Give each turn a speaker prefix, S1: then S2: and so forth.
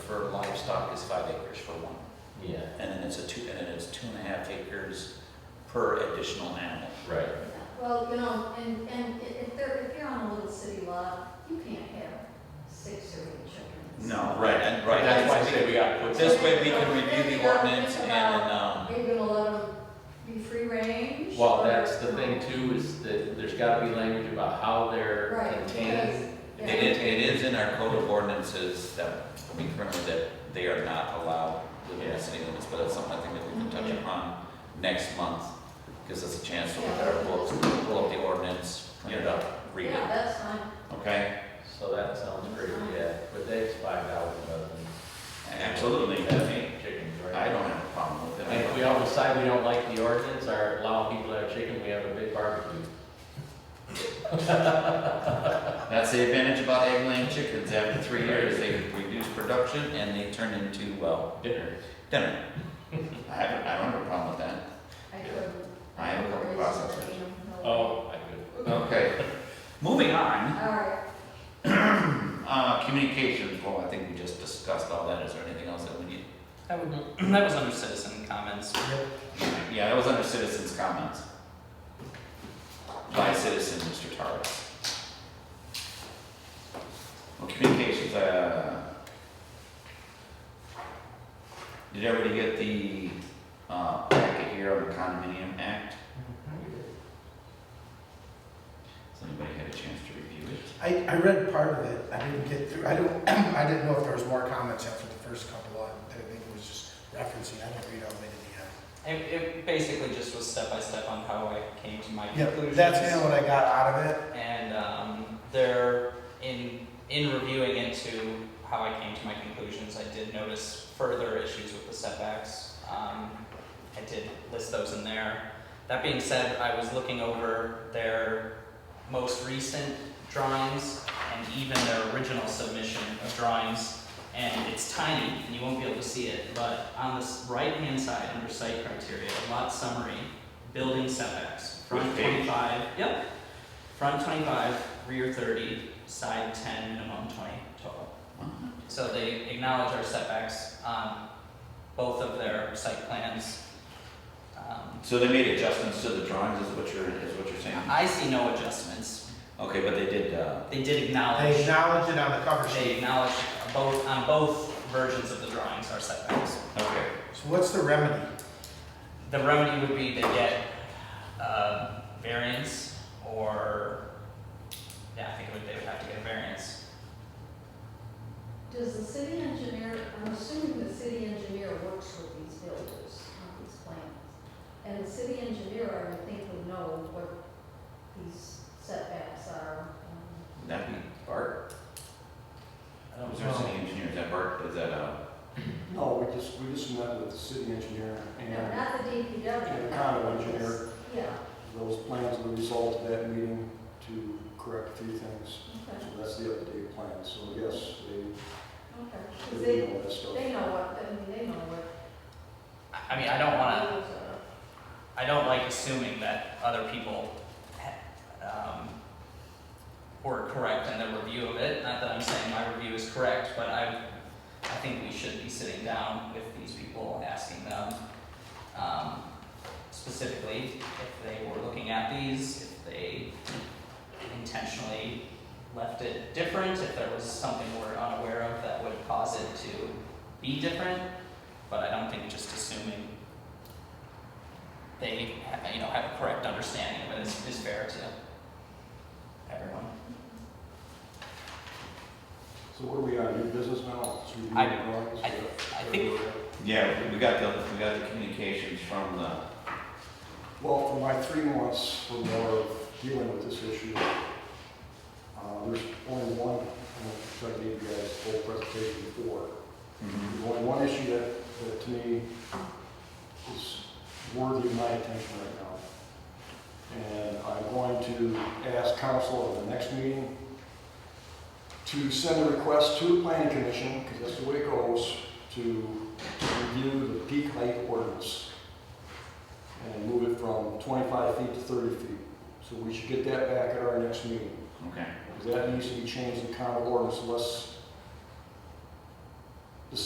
S1: for livestock is five acres for one.
S2: Yeah,
S1: And then it's a two, and then it's two and a half acres per additional animal.
S2: right.
S3: Well, you know, and, and i- if they're, if you're on a little city lot, you can't have six or eight chickens.
S1: No, right, and, right, that's why I say we got, but this way we can review the ordinance and, then, um,
S3: Are you gonna let them be free range?
S2: Well,
S3: or-
S2: that's the thing too, is that there's gotta be language about how they're
S3: Right,
S2: contained.
S3: because, yeah.
S1: it is, it is in our code of ordinances that we currently, that they are not allowed within the city limits, but it's something I think that we can touch
S3: Mm-hmm.
S1: upon next month. Gives us a chance to look at our books, pull up the ordinance, print it up, read
S3: Yeah,
S1: it,
S3: that's fine.
S1: okay?
S2: So that sounds great, yeah, but that's five thousand dozen.
S1: Absolutely, I mean,
S2: Chickens,
S1: I
S2: right?
S1: don't have a problem with it.
S2: And if we all decide we don't like the ordinance or allow people to have chicken, we have a big barbecue.
S1: That's the advantage about egg laying chickens, after three years, they reduce production and they turn into, well,
S2: Dinner.
S1: dinner. I haven't, I don't have a problem with that.
S3: I couldn't.
S1: I have a couple
S3: couldn't
S1: processors.
S3: raise them, no.
S2: Oh, I could.
S1: Okay. Moving on,
S3: All right,
S1: uh, communications, well, I think we just discussed all that, is there anything else that we need?
S4: That would, that was under citizen comments.
S1: Yeah, that was under citizens' comments. By citizen, Mr. Tarvis. Well, communications, uh. Did everybody get the, uh, packet here on the condominium act? Has anybody had a chance to review it?
S5: I, I read part of it, I didn't get through, I don't, I didn't know if there was more comments after the first couple, I think it was just referencing, I didn't read all the way to
S4: It, it basically just was step by step on how I came to my
S5: the end.
S4: conclusions.
S5: Yep, that's kind of what I got out of it,
S4: And um, there, in in reviewing into how I came to my conclusions, I did notice further issues with the setbacks. Um, I did list those in there. That being said, I was looking over their most recent drawings and even their original submission of drawings, and it's tiny, and you won't be able to see it, but on this right-hand side, under site criteria, lot summary, building setbacks, front
S1: Which page?
S4: twenty-five, yep. Front twenty-five, rear thirty, side ten, minimum twenty total. So they acknowledge our setbacks on both of their site plans. Um,
S1: So they made adjustments to the drawings, is what you're, is what you're saying?
S4: I see no adjustments.
S1: Okay, but they did, uh,
S4: They did
S5: they
S4: acknowledge,
S5: acknowledged it on the cover
S4: they
S5: sheet.
S4: acknowledge both, on both versions of the drawings our setbacks.
S1: okay,
S5: So what's the remedy?
S4: The remedy would be to get uh, variance or, yeah, I think it would, they would have to get a variance.
S3: does the city engineer, I'm assuming the city engineer works with these builders on these plans. And the city engineer, I would think, would know what these setbacks are. um,
S1: would that be Bart?
S4: I don't
S1: Was there a
S4: know.
S1: city engineer, is that Bart, is that, uh?
S6: No, we just, we just met with the city engineer
S3: no,
S6: and
S3: Not the DPW.
S6: and the condo engineer.
S3: Yeah,
S6: Those plans were resolved at that meeting to correct a few things. So
S3: okay,
S6: that's the up-to-date plan. So yes, they,
S3: okay. 'Cause
S6: they
S3: they,
S6: did all that stuff.
S3: they know what, I mean, they know what.
S4: I- I mean, I don't wanna,
S3: those are.
S4: I don't like assuming that other people um, were correct in their review of it. Not that I'm saying my review is correct, but I, I think we should be sitting down with these people, asking them um, specifically if they were looking at these, if they intentionally left it different, if there was something we're unaware of that would cause it to be different. But I don't think just assuming they you know have a correct understanding of it is, is fair to everyone.
S6: So what are we on, new business now? It's reviewing
S4: I-
S6: drawings?
S4: I-
S6: Is that-
S4: I think-
S1: Yeah, we got the, we got the communications from the,
S6: Well, for my three months or more of dealing with this issue, uh, there's only one, I'm going to give you guys the whole presentation before. There's only one issue that, that to me is worthy of my attention right now. And I'm going to ask council at the next meeting to send a request to the planning commission, because that's the way it goes, to to review the peak height ordinance and move it from 25 feet to 30 feet. So we should get that back at our next meeting.
S1: okay,
S6: Because that needs to be changed in common ordinance unless